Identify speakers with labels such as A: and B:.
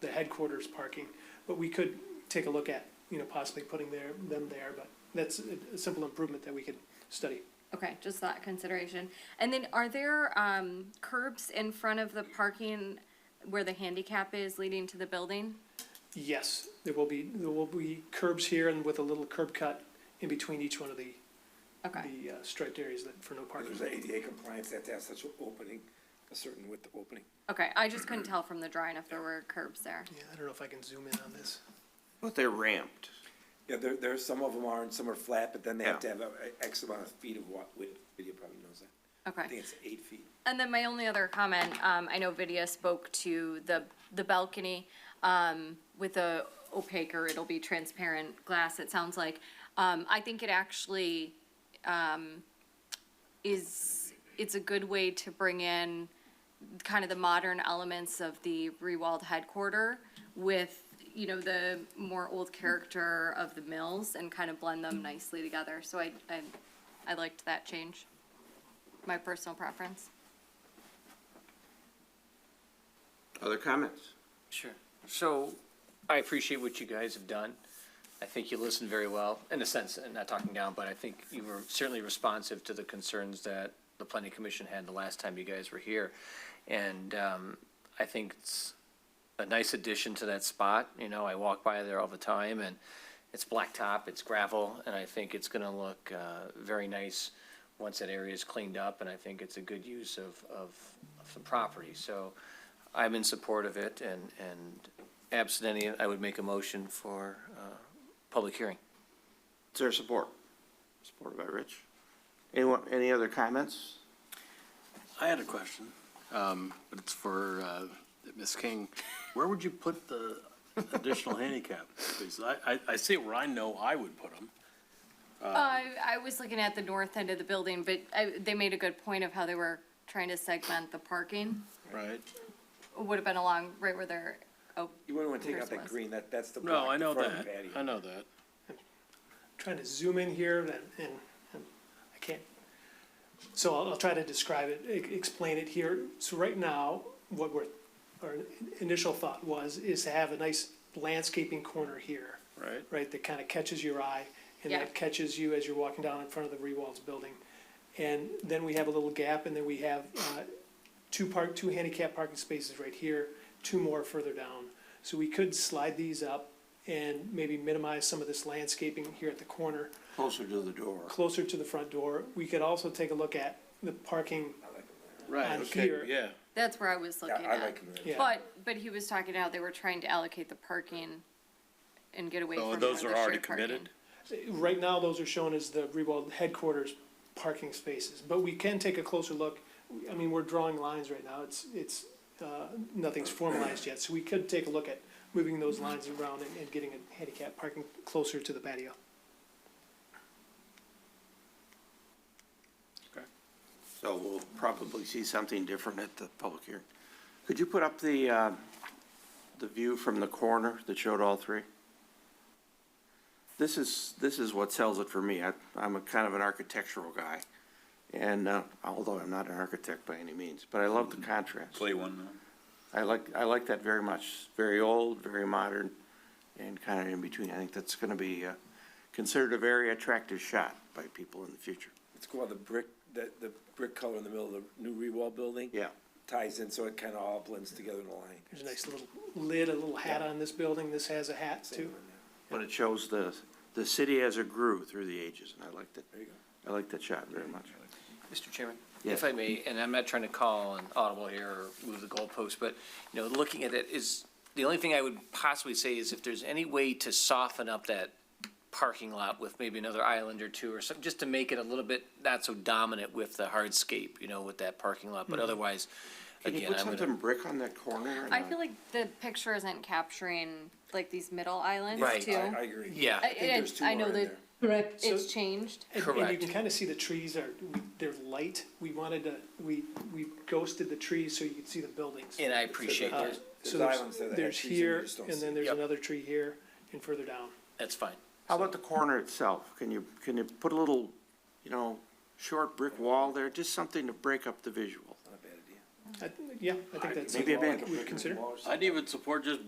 A: the headquarters parking, but we could take a look at, you know, possibly putting their, them there, but that's a- a simple improvement that we could study.
B: Okay, just that consideration. And then are there, um, curbs in front of the parking where the handicap is leading to the building?
A: Yes, there will be, there will be curbs here and with a little curb cut in between each one of the,
B: Okay,
A: the uh, striped areas that, for no parking.
C: There's ADA compliance, they have to have such an opening, a certain width opening.
B: okay, I just couldn't tell from the drawing if there were curbs there.
A: Yeah, I don't know if I can zoom in on this.
D: But they're ramped.
C: Yeah, there, there, some of them are and some are flat, but then they have to
D: Yeah.
C: have a- a X amount of feet of wa- width, video probably knows that. I
B: Okay.
C: think it's eight feet.
B: And then my only other comment, um, I know Vidya spoke to the, the balcony, um, with the opaque or it'll be transparent glass, it sounds like. Um, I think it actually, um, is, it's a good way to bring in kind of the modern elements of the Rewald headquarter with, you know, the more old character of the mills and kind of blend them nicely together. So I, I, I liked that change, my personal preference.
D: Other comments?
E: Sure. So I appreciate what you guys have done. I think you listened very well, in a sense, and not talking down, but I think you were certainly responsive to the concerns that the planning commission had the last time you guys were here. And um, I think it's a nice addition to that spot. You know, I walk by there all the time and it's blacktop, it's gravel, and I think it's gonna look uh, very nice once that area is cleaned up, and I think it's a good use of, of of the property. So I'm in support of it and, and absent any, I would make a motion for uh, public hearing.
D: Is there support? Supported by Rich. Anyone, any other comments?
F: I had a question, um, but it's for, uh, Ms. King. Where would you put the additional handicap? Because I, I, I see where I know I would put them.
B: Uh, I was looking at the north end of the building, but I, they made a good point of how they were trying to segment the parking.
F: Right.
B: It Would have been along right where they're, oh,
C: You wouldn't want to take out that
B: Christmas.
C: green, that, that's the
F: No, I
C: block,
F: know
C: the front
F: that.
C: patio.
F: I know that.
A: trying to zoom in here and, and, and I can't. So I'll, I'll try to describe it, e- explain it here. So right now, what we're, our initial thought was, is to have a nice landscaping corner here,
F: Right.
A: right, that kind of catches your eye and that
B: Yeah.
A: catches you as you're walking down in front of the Rewalds building. And then we have a little gap and then we have, uh, two park, two handicap parking spaces right here, two more further down. So we could slide these up and maybe minimize some of this landscaping here at the corner,
D: Closer to the door.
A: closer to the front door. We could also take a look at the parking,
F: Right,
A: On
F: okay,
A: here.
F: yeah.
B: that's where I was
C: Yeah,
B: looking
C: I
B: at.
C: like them.
A: yeah.
B: But, but he was talking how they were trying to allocate the parking and get away from
F: So
B: more of
F: Oh, those
B: the
F: are already
B: shared parking.
F: committed?
A: Right now, those are shown as the Rewald headquarters parking spaces, but we can take a closer look. I mean, we're drawing lines right now, it's, it's, uh, nothing's formalized yet, so we could take a look at moving those lines around and, and getting a handicap parking closer to the patio.
D: So we'll probably see something different at the public hearing. Could you put up the, uh, the view from the corner that showed all three? This is, this is what sells it for me. I, I'm a kind of an architectural guy. And, uh, although I'm not an architect by any means, but I love the contrast.
G: Play one now.
D: I like, I like that very much. Very old, very modern, and kind of in between. I think that's going to be uh, considered a very attractive shot by people in the future.
C: It's called the brick, the, the brick color in the middle of the new Rewall building.
D: Yeah.
C: Ties in, so it kind of all blends together in a line.
A: There's a nice little lid, a little hat on this building, this has a hat too.
D: But it shows the, the city as it grew through the ages, and I liked it.
C: There you go.
D: I like that shot very much.
E: Mr. Chairman?
D: Yes.
E: If I may, and I'm not trying to call an audible here or move the goalpost, but, you know, looking at it is, the only thing I would possibly say is if there's any way to soften up that parking lot with maybe another island or two or something, just to make it a little bit not so dominant with the hardscape, you know, with that parking lot, but otherwise,
D: Mm-hmm. Can you
E: again,
D: put
E: I'm
D: something
E: gonna.
D: brick on that corner? or
B: I
D: not?
B: feel like the picture isn't capturing like these middle islands
E: Right.
B: too.
C: I, I agree.
E: Yeah.
B: I-
C: I think there's
B: it-
C: two
B: I know
C: more in
B: that-
C: there.
H: Correct.
B: It's changed.
A: And- And you
E: Correct.
A: can kind of see the trees are, they're light, we wanted to, we, we ghosted the trees so you could see the buildings.
E: And I appreciate
A: Uh,
E: that,
A: So
C: There's
A: there's,
C: islands there that have
A: there's
C: trees in them, you
A: here,
C: just don't
A: and
C: see
A: then
C: it.
A: there's
E: Yep.
A: another tree here, and further down.
E: that's fine.
D: How about the corner itself? Can you, can you put a little, you know, short brick wall there? Just something to break up the visual.
C: Not a bad idea.
A: I- Yeah, I think that's.
D: Maybe a
A: something
D: bank.
A: We'd consider.
C: Wall or something.
F: I'd even support just